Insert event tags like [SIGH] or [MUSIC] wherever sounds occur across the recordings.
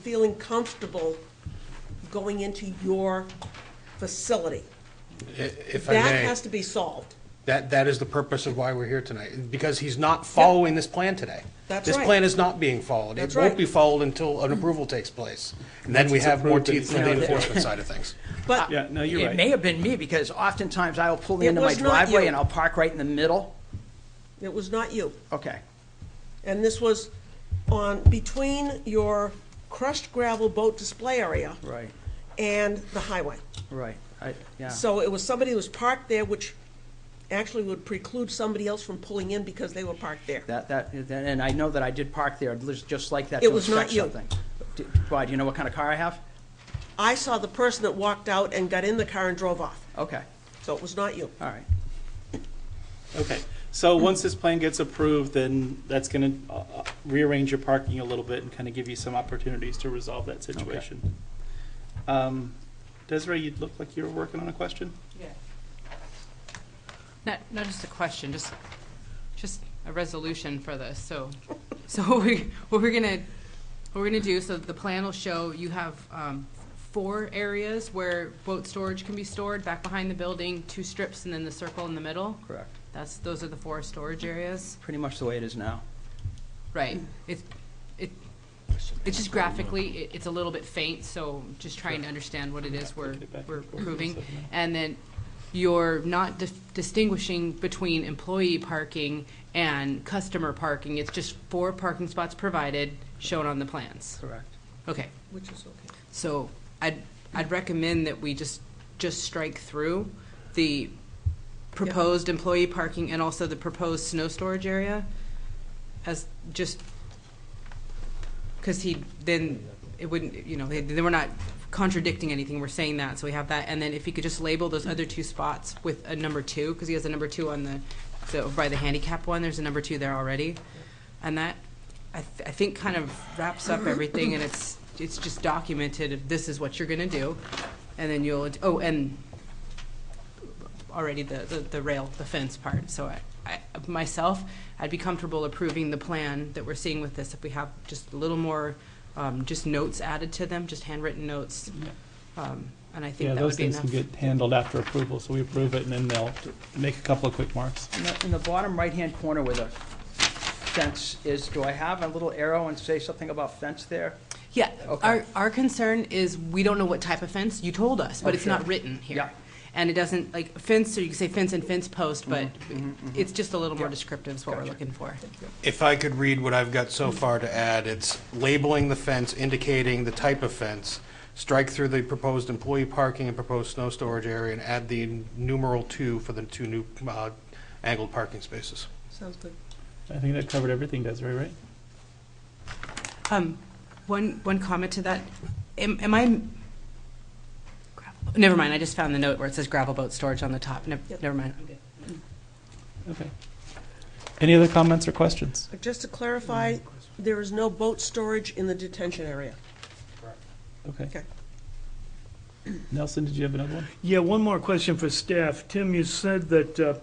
feeling comfortable going into your facility. If I That may, has to be solved. that, that is the purpose of why we're here tonight, because he's not following this plan today. That's This right. plan is not being followed. That's It right. won't be followed until an approval takes place. And then we it's have more approved, teeth it's for the not there. enforcement side of things. But, Yeah, no, you're It may right. have been me, because oftentimes I'll pull It into my was not you. driveway and I'll park right in the middle. it was not you. Okay. And this was on, between your crushed gravel boat display area. Right. And the highway. Right, I, yeah. So it was somebody who was parked there, which actually would preclude somebody else from pulling in because they were parked there. That, that, that- and I know that I did park there, just just like that It to was not inspect you. something. D- Why, do you know what kind of car I have? I saw the person that walked out and got in the car and drove off. Okay, So it was not you. all right. Okay, so once this plan gets approved, then that's gonna uh, uh, rearrange your parking a little bit and kind of give you some opportunities to resolve that situation. Um, Desiree, you look like you were working on a question? Not, not just a question, just, just a resolution for this, so, so [LAUGHS] what we, what we're gonna, what we're gonna do, so the plan will show you have, um, four areas where boat storage can be stored, back behind the building, two strips, and then the circle in the middle. Correct. That's, those are the four storage areas. Pretty much the way it is now. Right, it's, it, it's just graphically, it, it's a little bit faint, so just trying to understand what it is we're, we're proving. And then you're not dis- distinguishing between employee parking and customer parking. It's just four parking spots provided, shown on the plans. Correct. Okay, Which is okay. so I'd, I'd recommend that we just, just strike through the proposed employee parking and also the proposed snow storage area as just, because he, then it wouldn't, you know, then we're not contradicting anything, we're saying that, so we have that. And then if he could just label those other two spots with a number two, because he has a number two on the, so by the handicap one, there's a number two there already. And that, I, th- I think kind of wraps up everything and it's, it's just documented, if this is what you're gonna do. And then you'll, oh, and already the, the, the rail, the fence part. So I, I, myself, I'd be comfortable approving the plan that we're seeing with this if we have just a little more, um, just notes added to them, just handwritten notes. Um, and I think that would be enough. handled after approval, so we approve it and then they'll make a couple of quick marks. In the, in the bottom right-hand corner where the fence is, do I have a little arrow and say something about fence there? Yeah, Okay. our, our concern is we don't know what type of fence, you told us, but it's not written here. Oh, Yeah. And it doesn't, like fence, so you can say fence and fence post, but Mm-hmm, it's just a little more descriptive is what we're Gotcha. looking for. If I could read what I've got so far to add, it's labeling the fence, indicating the type of fence, strike through the proposed employee parking and proposed snow storage area, and add the numeral two for the two new uh, angled parking spaces. Sounds good. I think that covered everything, Desiree, right? Um, one, one comment to that, am, am I? gravel- Never mind, I just found the note where it says gravel boat storage on the top, never, Yep. never mind. Okay. Any other comments or questions? But Just to clarify, there is no boat storage in the detention area. Okay. Okay. Nelson, did you have another one? Yeah, one more question for staff. Tim, you said that uh,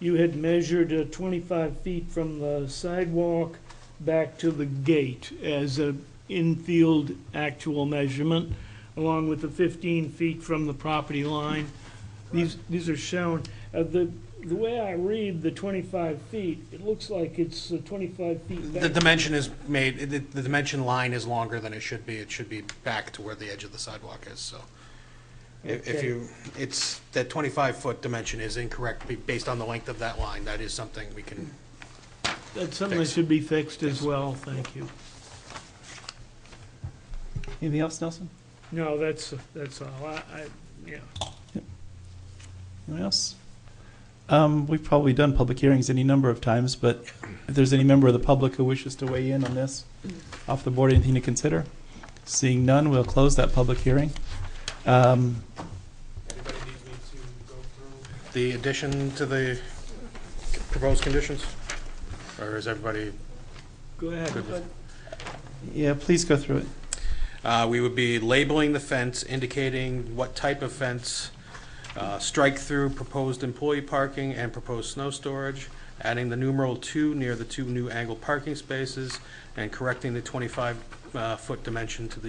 you had measured uh, 25 feet from the sidewalk back to the gate as an infield actual measurement, along with the 15 feet from the property line. These, these are shown. Uh, The, the way I read the 25 feet, it looks like it's uh, 25 feet The back. dimension is made, the, the dimension line is longer than it should be. It should be back to where the edge of the sidewalk is, so. If, if Okay. you, it's, that twenty-five foot dimension is incorrect be- based on the length of that line. That is something we can, That's something that should be fixed as well, thank you. Anything else, Nelson? No, that's, that's all. I, I, yeah. Anyone else? Um, we've probably done public hearings any number of times, but if there's any member of the public who wishes to weigh in on this, off the board, anything to consider? Seeing none, we'll close that public hearing. Um, the addition to the proposed conditions? Or is everybody Go ahead. good with? yeah, please go through it. Uh, we would be labeling the fence, indicating what type of fence, uh, strike through proposed employee parking and proposed snow storage, adding the numeral two near the two new angled parking spaces, and correcting the twenty-five, uh, foot dimension to the